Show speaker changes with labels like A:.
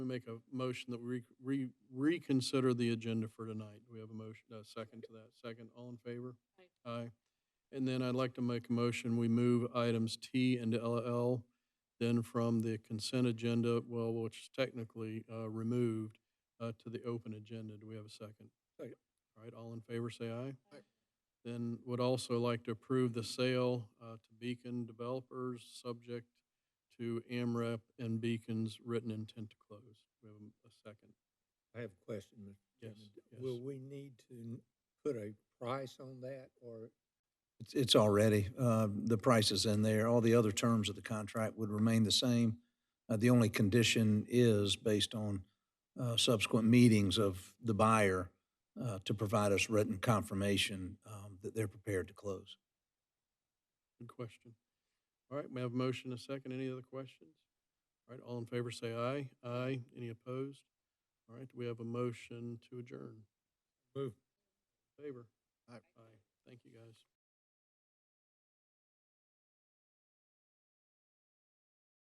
A: make a motion that we re- reconsider the agenda for tonight. Do we have a motion, a second to that? Second, all in favor? Aye. And then I'd like to make a motion, we move items T and LL, then from the consent agenda, well, which is technically uh, removed, uh, to the open agenda. Do we have a second?
B: Second.
A: All right, all in favor, say aye.
B: Aye.
A: Then would also like to approve the sale uh, to Beacon Developers, subject to AMREP and Beacon's written intent to close. We have a second.
B: I have a question, Mr.
A: Yes,
B: Chairman.
A: yes.
B: Will we need to n- put a price on that, or
C: It's, it's already, uh, the price is in there. All the other terms of the contract would remain the same. Uh, The only condition is based on uh, subsequent meetings of the buyer uh, to provide us written confirmation um, that they're prepared to close.
A: Good question. All right, we have a motion, a second. Any other questions? All right, all in favor, say aye. Aye. Any opposed? All right, we have a motion to adjourn.
B: Move.
A: Favor?
B: Aye.
A: Aye. Thank you, guys.